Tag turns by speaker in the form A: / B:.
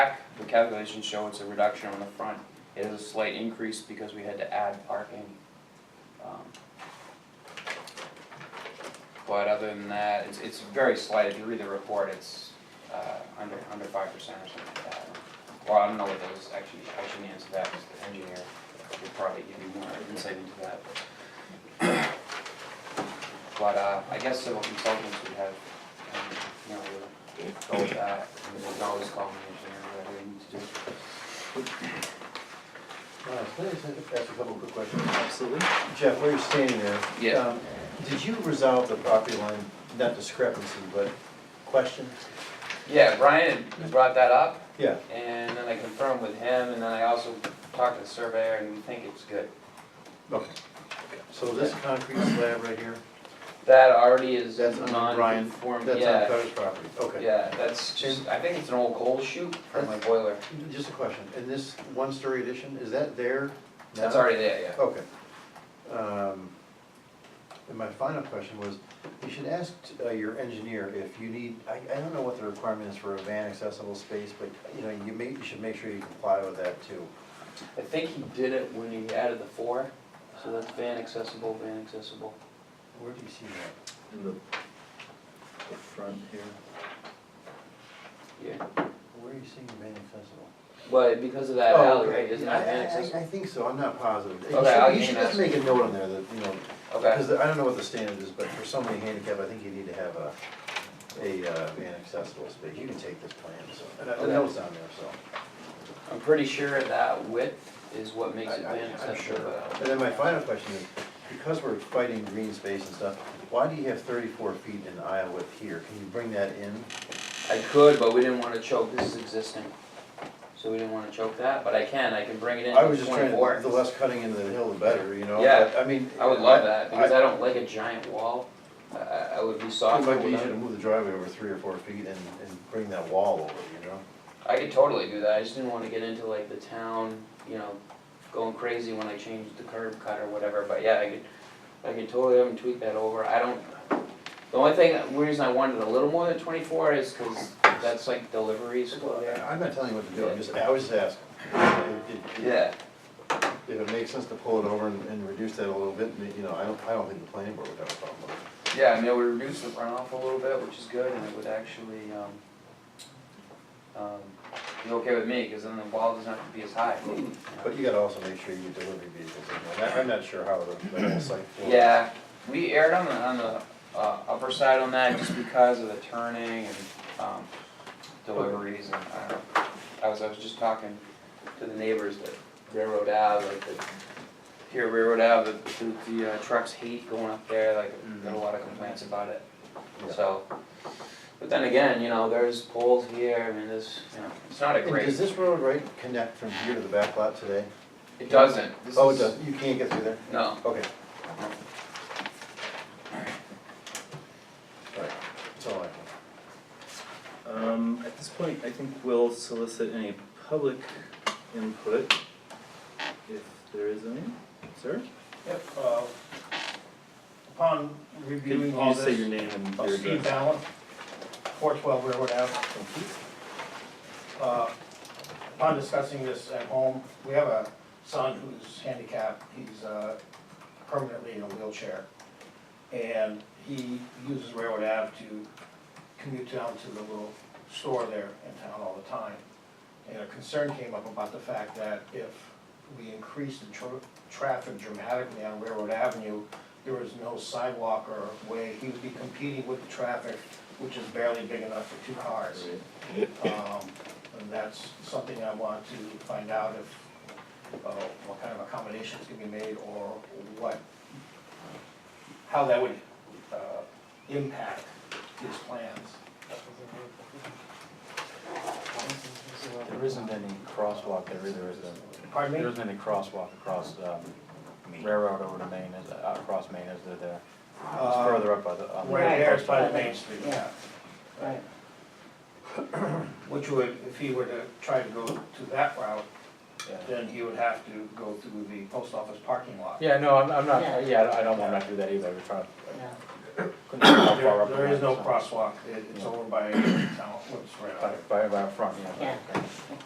A: calculations show it's a reduction on the front. It is a slight increase because we had to add parking. Um, But other than that, it's, it's very slight, if you read the report, it's, uh, under, under five percent or something like that. Well, I don't know what those, actually, I shouldn't answer that, because the engineer would probably give you more insight into that. But, uh, I guess civil consultants would have, um, you know, would go with that, and they could always call an engineer, whatever they need to do.
B: Can I just ask a couple quick questions?
C: Absolutely.
B: Jeff, where you're standing there.
A: Yeah.
B: um, Did you resolve the property line, not discrepancy, but question?
A: Yeah, Brian brought that up,
B: Yeah,
A: and then I confirmed with him, and then I also talked to the surveyor, and we think it's good.
B: okay. So this concrete slab right here,
A: That already is
B: That's on Brian-
A: non-conform,
B: that's on
A: yeah,
B: Carter's property, okay.
A: yeah, that's just, I think it's an old coal chute from my boiler,
B: Just a question, and this one-story addition, is that there now?
A: that's already there, yeah.
B: Okay. Um, And my final question was, you should ask uh, your engineer if you need, I, I don't know what the requirement is for a van accessible space, but, you know, you may, you should make sure you comply with that too.
A: I think he did it when he added the four, so that's van accessible, van accessible.
B: Where do you see that?
C: In the, the front here.
A: Yeah,
B: Where are you seeing van accessible?
A: well, because of that
B: Oh,
A: alley, right,
B: okay.
A: isn't
B: Yeah, I-
A: that van
B: I- I-
A: accessible?
B: I think so, I'm not positive. You
A: Okay, I'll
B: should, you
A: give
B: should
A: you
B: just
A: that.
B: make a note on there that, you know,
A: Okay,
B: because I don't know what the standard is, but for somebody handicapped, I think you need to have a, a uh, van accessible space. You can take this plan, so, and I- the
A: Okay.
B: note's on there, so.
A: I'm pretty sure that width is what makes it
B: I- I-
A: van
B: I'm
A: accessible,
B: sure.
A: but I
B: And then my final question is, because we're fighting green space and stuff, why do you have thirty-four feet in aisle width here? Can you bring that in?
A: I could, but we didn't wanna choke, this is existing, so we didn't wanna choke that, but I can, I can bring it in
B: I
A: to
B: was just trying,
A: twenty-four.
B: to the less cutting into the hill, the better, you know?
A: Yeah,
B: but, I mean.
A: I would love
B: I-
A: that, because I don't like a giant wall, I, I I would be
B: It
A: soft
B: might be
A: without
B: easier to move the driveway over three or four feet and, and bring that wall over, you know?
A: I could totally do that, I just didn't wanna get into like the town, you know, going crazy when I changed the curb cut or whatever, but yeah, I could, I could totally have them tweak that over, I don't, the only thing, the reason I wanted a little more than twenty-four is cause that's like deliveries go there.
B: I'm not telling you what to do, I'm just, I was just asking. If- if-
A: Yeah,
B: If it makes sense to pull it over and, and reduce that a little bit, you know, I don't, I don't think the planning board would have a problem with it.
A: yeah, I mean, it would reduce the runoff a little bit, which is good, and it would actually, um, um, be okay with me, cause then the wall doesn't have to be as high.
B: But you gotta also make sure you delivery vehicles in there, And I- I'm not sure how the, the whole site. floor-
A: Yeah, we aired on the, on the uh, upper side on that just because of the turning and um, deliveries and I don't know. I was, I was just talking to the neighbors that Railroad Ave, like the, here at Railroad Ave, the, the uh, trucks hate going up there, like, got a lot of complaints about it.
B: Mm-hmm. Yeah.
A: So, but then again, you know, there's poles here, I mean, there's, you know, it's not a
B: And does
A: great,
B: this road right connect from here to the back lot today?
A: it doesn't. This
B: Oh, it
A: is-
B: does, you can't get through there?
A: No.
B: Okay. Alright, that's all I have.
C: Um, at this point, I think we'll solicit any public input, if there is any, sir?
D: Yep, uh, upon
C: Can
D: reviewing all
C: you say your
D: this,
C: name and
D: uh,
C: your
D: Steve
C: address?
D: Allen, four twelve Railroad Ave.
C: Thank you.
D: Uh, Upon discussing this at home, we have a son who's handicapped, he's uh, permanently in a wheelchair. And he uses Railroad Ave to commute down to the little store there in town all the time. And a concern came up about the fact that if we increase the tr- traffic dramatically on Railroad Avenue, there is no sidewalk or way, he would be competing with the traffic, which is barely big enough for two cars. Um, and that's something I want to find out if, uh, what kind of accommodations can be made or what, how that would, uh, impact his plans.
E: There isn't any crosswalk there either, is there?
D: Pardon
E: There
D: me?
E: isn't any crosswalk across um, railroad over to Maine, is, uh, across Maine, is there there? It's
D: Uh,
E: further up by the. on the
D: Right there
E: coast.
D: by the main street, yeah.
A: Right.
D: Which would, if he were to try to go to that route,
E: Yeah.
D: then he would have to go through the post office parking lot.
E: Yeah, no, I'm, I'm not,
F: Yeah.
E: yeah, I don't- I don't wanna do that either, we're trying.
F: Yeah.
E: couldn't tell how far
D: There,
E: up
D: there
E: it
D: is no
E: so-
D: crosswalk, It- it's
E: Yeah.
D: over by, town, it's right
E: By,
D: out.
E: by, by up front, yeah.
F: Yeah.